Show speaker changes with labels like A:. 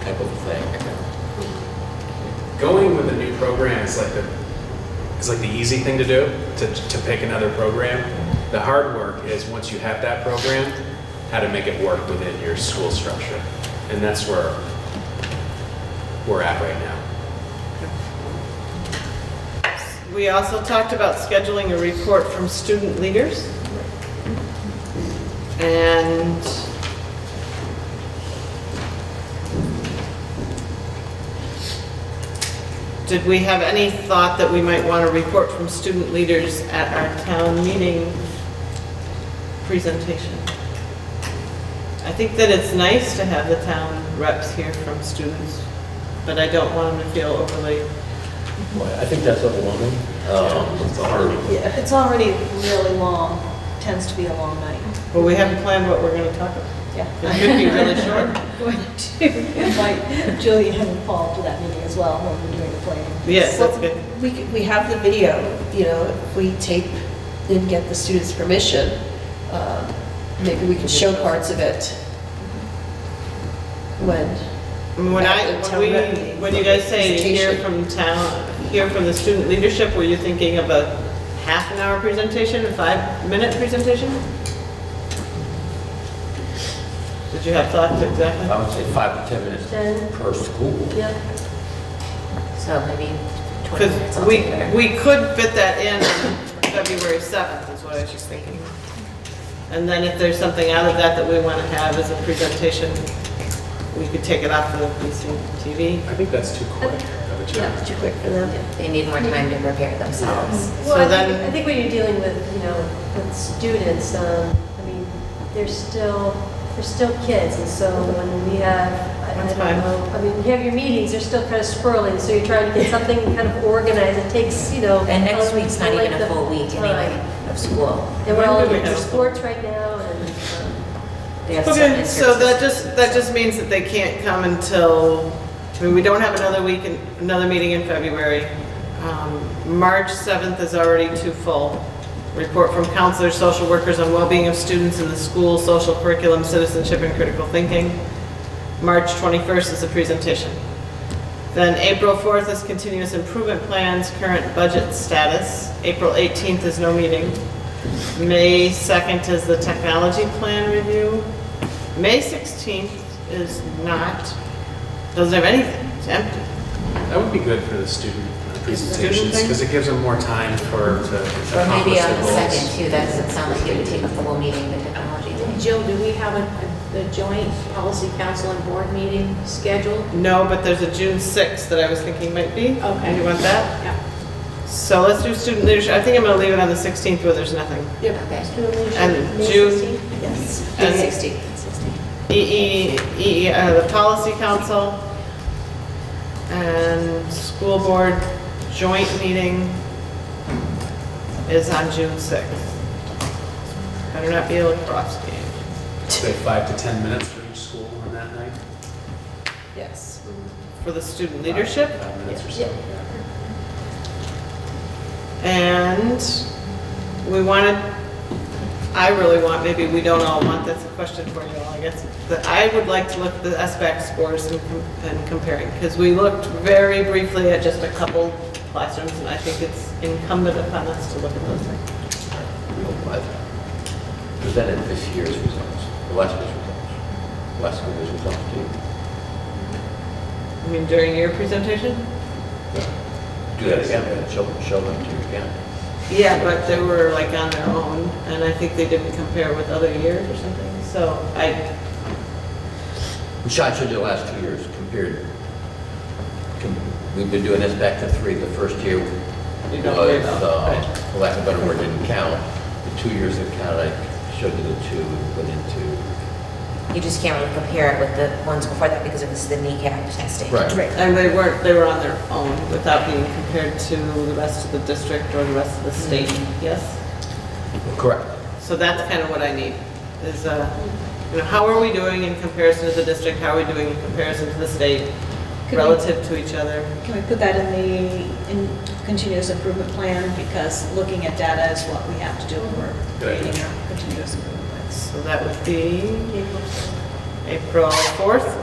A: type of thing.
B: Going with a new program is like the is like the easy thing to do to, to pick another program. The hard work is once you have that program, how to make it work within your school structure, and that's where we're at right now.
C: We also talked about scheduling a report from student leaders. And did we have any thought that we might want a report from student leaders at our town meeting presentation? I think that it's nice to have the town reps hear from students, but I don't want them to feel overly
A: Well, I think that's overwhelming. Um, It's hard.
D: Yeah, if it's already really long, tends to be a long night.
C: Well, we haven't planned what we're going to talk about. It
D: Yeah.
C: could be really short.
D: Going to invite Julian and Paul to that meeting as well when we're doing the planning.
C: Yes, that's good.
E: We, c- we have the video, you know, if we tape and get the students' permission, um, maybe we can show parts of it when,
C: When I,
E: Back to
C: when
E: town rep
C: we,
E: meeting.
C: when you guys say hear from
E: Presentation.
C: town, hear from the student leadership, were you thinking of a half an hour presentation, a five-minute presentation? Did you have thoughts exactly?
A: I would say five to 10
D: Ten.
A: minutes per school.
D: Yeah.
F: So maybe 20 minutes
C: Because we,
F: altogether.
C: we could fit that in on February 7th, is what I was just thinking. And then if there's something out of that that we want to have as a presentation, we could take it off of BCTV.
B: I think that's too quick of a challenge.
E: too quick for them.
F: They need more time to prepare themselves.
C: So
D: Well, I think,
C: then-
D: I think when you're dealing with, you know, with students, um, I mean, they're still, they're still kids, and so when we have, I- I
C: That's
D: don't
C: fine.
D: know, I mean, you have your meetings, they're still kind of swirling, so you're trying to get something kind of organized, it takes, you know.
F: And next
D: um,
F: week's not
D: like
F: even a
D: the
F: full week
D: time.
F: anyway of school.
D: And we're all
C: When do we
D: into
C: have-
D: sports right now, and, um,
F: They have
C: Okay,
F: some
C: so that
F: services.
C: just, that just means that they can't come until, I mean, we don't have another week, in another meeting in February. Um, March 7th is already too full. Report from counselors, social workers on well-being of students in the school, social curriculum, citizenship, and critical thinking. March 21st is a presentation. Then April 4th is continuous improvement plans, current budget status. April 18th is no meeting. May 2nd is the technology plan review. May 16th is not, doesn't have anything, it's empty.
B: That would be good for the student uh, presentations
C: thing?
B: because it gives them more time for to
F: Or
B: accomplish
F: maybe on
B: their
F: the second
B: goals.
F: too, that doesn't sound like it would take a full meeting, the technology thing.
G: Jill, do we have a, a joint policy council and board meeting scheduled?
C: No, but there's a June 6th that I was thinking might be.
G: Okay.
C: You want that?
G: Yeah.
C: So let's do student leadership. I think I'm gonna leave it on the 16th where there's nothing.
F: Okay.
D: student leadership,
C: And
D: May
C: June-
D: 16th? Yes.
C: And-
F: 60.
C: E EE, EE, uh, the policy council and school board joint meeting is on June 6th. Better not be a lacrosse game.
B: Say five to 10 minutes for each school on that night.
E: Yes.
C: for the student leadership.
B: Five minutes or so.
C: And we wanted, I really want, maybe we don't all want, that's a question for you all, I guess, that I would like to look at the SBAC scores and com- and comparing, because we looked very briefly at just a couple classrooms, and I think it's incumbent upon us to look at those things.
A: Real what? Presented this year's results, the last year's results, last school year's results too.
C: I mean, during your presentation?
A: Do that again, show, show them to your county.
C: Yeah, but they were like on their own, and I think they didn't compare with other years or something, so I,
A: We shot you the last two years compared, com- we've been doing this back to three. The first year was,
C: You don't care about-
A: uh, for lack of a better word, didn't count. The two years that counted, I showed you the two that went into.
F: You just can't really compare it with the ones before that because it was the kneecap testing.
A: Right.
C: And they weren't, they were on their own without being compared to the rest of the district or the rest of the state, yes?
A: Correct.
C: So that's kind of what I need, is, uh, you know, how are we doing in comparison to the district? How are we doing in comparison to the state
H: Could we-
C: relative to each other?
H: Can we put that in the in continuous improvement plan? Because looking at data is what we have to do when we're
B: Good idea.
H: creating our continuous improvement plans.
C: So that would be April 4th.